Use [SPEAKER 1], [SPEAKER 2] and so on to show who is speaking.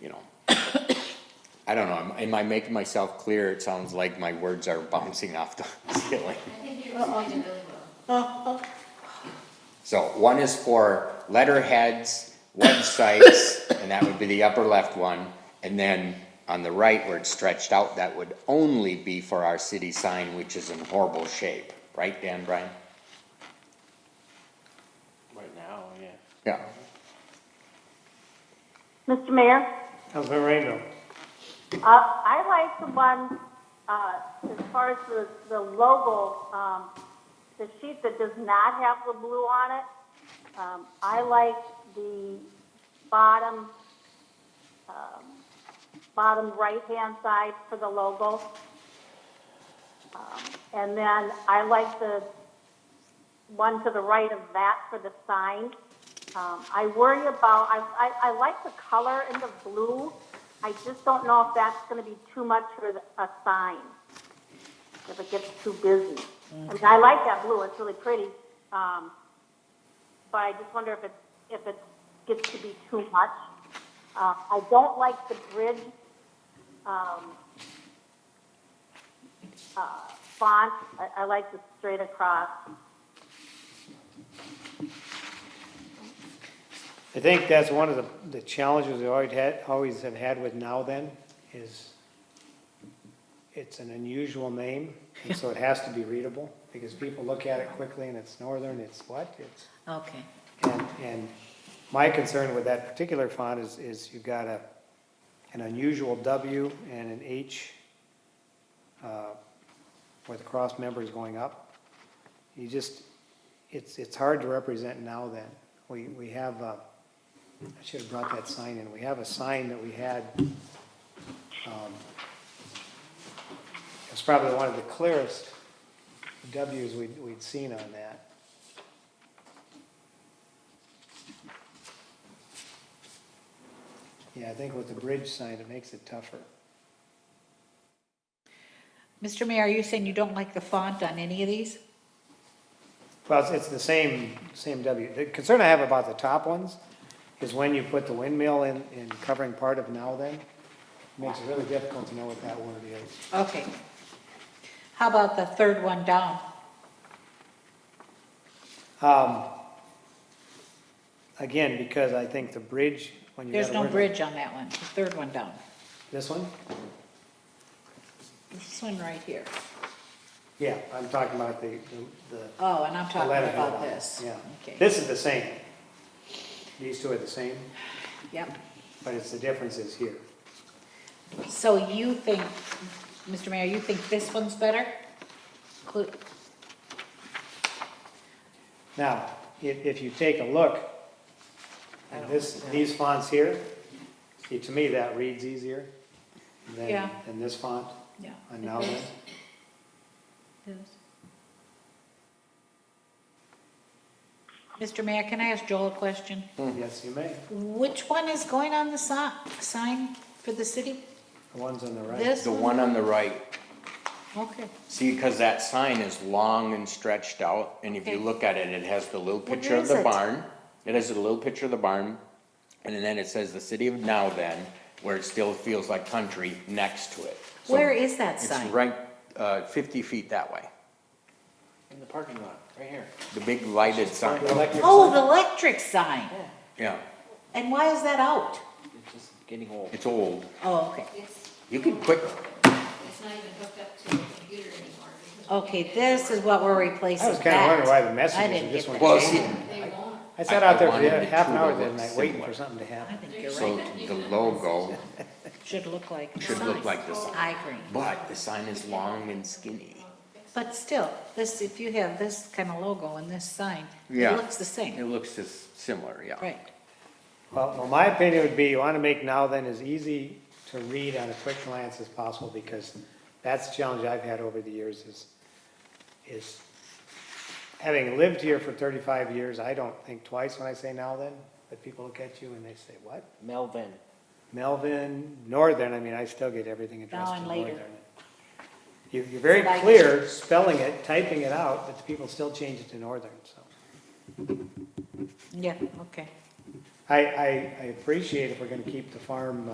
[SPEAKER 1] you know. I don't know, am- am I making myself clear? It sounds like my words are bouncing off the ceiling.
[SPEAKER 2] I think you explained it really well.
[SPEAKER 1] So one is for letterheads, websites, and that would be the upper left one. And then on the right where it's stretched out, that would only be for our city sign, which is in horrible shape, right, Dan Bryan?
[SPEAKER 3] Right now, yeah.
[SPEAKER 1] Yeah,
[SPEAKER 4] Mr. Mayor,
[SPEAKER 3] Councilmember Rainville.
[SPEAKER 4] uh, I like the one, uh, as far as the, the logo, um, the sheet that does not have the blue on it. Um, I like the bottom, um, bottom right-hand side for the logo. Um, And then I like the one to the right of that for the sign. Um, I worry about, I, I, I like the color and the blue. I just don't know if that's gonna be too much for the- a sign, if it gets too busy. I mean, I like that blue, it's really pretty, um, but I just wonder if it, if it gets to be too much. Uh, I don't like the bridge, um, uh, font, I, I like the straight across.
[SPEAKER 3] I think that's one of the, the challenges we always had, always have had with Now Then is it's an unusual name, and so it has to be readable, because people look at it quickly and it's northern, it's what, it's.
[SPEAKER 5] Okay.
[SPEAKER 3] And, and my concern with that particular font is, is you've got a, an unusual W and an H, uh, where the cross member is going up. You just, it's, it's hard to represent now then. We, we have, uh, I should have brought that sign in. We have a sign that we had, um, it's probably one of the clearest Ws we'd, we'd seen on that. Yeah, I think with the bridge sign, it makes it tougher.
[SPEAKER 5] Mr. Mayor, are you saying you don't like the font on any of these?
[SPEAKER 3] Well, it's- it's the same, same W. The concern I have about the top ones is when you put the windmill in, in covering part of now then, it makes it really difficult to know what that word is.
[SPEAKER 5] Okay. How about the third one down?
[SPEAKER 3] Um, Again, because I think the bridge, when you got
[SPEAKER 5] There's
[SPEAKER 3] a
[SPEAKER 5] no
[SPEAKER 3] word-
[SPEAKER 5] bridge on that one, the third one down.
[SPEAKER 3] This one?
[SPEAKER 5] This one right here.
[SPEAKER 3] Yeah, I'm talking about the, the- the
[SPEAKER 5] Oh, and I'm
[SPEAKER 3] the
[SPEAKER 5] talking
[SPEAKER 3] letterhead
[SPEAKER 5] about
[SPEAKER 3] on it.
[SPEAKER 5] this.
[SPEAKER 3] Yeah.
[SPEAKER 5] Okay.
[SPEAKER 3] This is the same. These two are the same,
[SPEAKER 5] Yep.
[SPEAKER 3] but it's, the difference is here.
[SPEAKER 5] So you think, Mr. Mayor, you think this one's better? Clu-
[SPEAKER 3] Now, if, if you take a look at this, these fonts here, see, to me, that reads easier than,
[SPEAKER 5] Yeah.
[SPEAKER 3] than this font
[SPEAKER 5] Yeah.
[SPEAKER 3] on now then.
[SPEAKER 5] Mr. Mayor, can I ask Joel a question?
[SPEAKER 1] Hmm.
[SPEAKER 3] Yes, you may.
[SPEAKER 5] Which one is going on the si- sign for the city?
[SPEAKER 3] The ones on the right.
[SPEAKER 5] This
[SPEAKER 1] the
[SPEAKER 5] one?
[SPEAKER 1] one on the right.
[SPEAKER 5] Okay.
[SPEAKER 1] See, because that sign is long and stretched out, and if you
[SPEAKER 5] Okay.
[SPEAKER 1] look at it, it has the little
[SPEAKER 5] Where
[SPEAKER 1] picture of
[SPEAKER 5] is
[SPEAKER 1] the
[SPEAKER 5] it?
[SPEAKER 1] barn. It has a little picture of the barn, and then it says the city of Now Then, where it still feels like country, next to it. So
[SPEAKER 5] Where is that
[SPEAKER 1] It's
[SPEAKER 5] sign?
[SPEAKER 1] right, uh, fifty feet that way,
[SPEAKER 6] In the parking lot, right here.
[SPEAKER 1] the big lighted sign,
[SPEAKER 3] The electric
[SPEAKER 5] Oh,
[SPEAKER 3] sign.
[SPEAKER 5] the electric sign.
[SPEAKER 1] yeah,
[SPEAKER 5] And why is that out?
[SPEAKER 6] It's just getting old.
[SPEAKER 1] it's old.
[SPEAKER 5] Oh, okay.
[SPEAKER 2] It's,
[SPEAKER 1] You can quick,
[SPEAKER 2] it's not even hooked up to the computer anymore. because we
[SPEAKER 5] Okay,
[SPEAKER 2] can't get it
[SPEAKER 5] this
[SPEAKER 2] to
[SPEAKER 5] is what we're replacing.
[SPEAKER 3] I was kinda wondering why the
[SPEAKER 5] I
[SPEAKER 3] messages
[SPEAKER 5] didn't
[SPEAKER 3] are just one.
[SPEAKER 5] get that.
[SPEAKER 1] well, see,
[SPEAKER 2] work. They won't,
[SPEAKER 3] I sat
[SPEAKER 1] I- I
[SPEAKER 3] out there for
[SPEAKER 1] wanted
[SPEAKER 3] the-
[SPEAKER 1] it
[SPEAKER 3] half an
[SPEAKER 1] to
[SPEAKER 3] hour
[SPEAKER 1] look
[SPEAKER 3] the other night waiting
[SPEAKER 1] similar.
[SPEAKER 3] for something to
[SPEAKER 5] I
[SPEAKER 3] happen.
[SPEAKER 5] think you're
[SPEAKER 1] so
[SPEAKER 5] right.
[SPEAKER 1] the logo
[SPEAKER 5] Should look like the
[SPEAKER 1] should look
[SPEAKER 5] sign.
[SPEAKER 1] like this,
[SPEAKER 5] I agree.
[SPEAKER 1] but the sign is long and skinny.
[SPEAKER 5] But still, this, if you have this kind of logo and this sign,
[SPEAKER 1] Yeah.
[SPEAKER 5] it looks the
[SPEAKER 1] It
[SPEAKER 5] same.
[SPEAKER 1] looks just similar, yeah.
[SPEAKER 5] Right.
[SPEAKER 3] Well, well, my opinion would be you want to make now then as easy to read on a quick glance as possible because that's the challenge I've had over the years is, is having lived here for thirty-five years, I don't think twice when I say now then, but people look at you and they say, what?
[SPEAKER 6] Melvin.
[SPEAKER 3] Melvin, Northern, I mean, I still get everything addressed
[SPEAKER 5] Now
[SPEAKER 3] to
[SPEAKER 5] and
[SPEAKER 3] Northern.
[SPEAKER 5] later.
[SPEAKER 3] You, you're very
[SPEAKER 5] Like-
[SPEAKER 3] clear spelling it, typing it out, but the people still change it to Northern, so.
[SPEAKER 5] Yeah, okay.
[SPEAKER 3] I, I, I appreciate if we're gonna keep the farm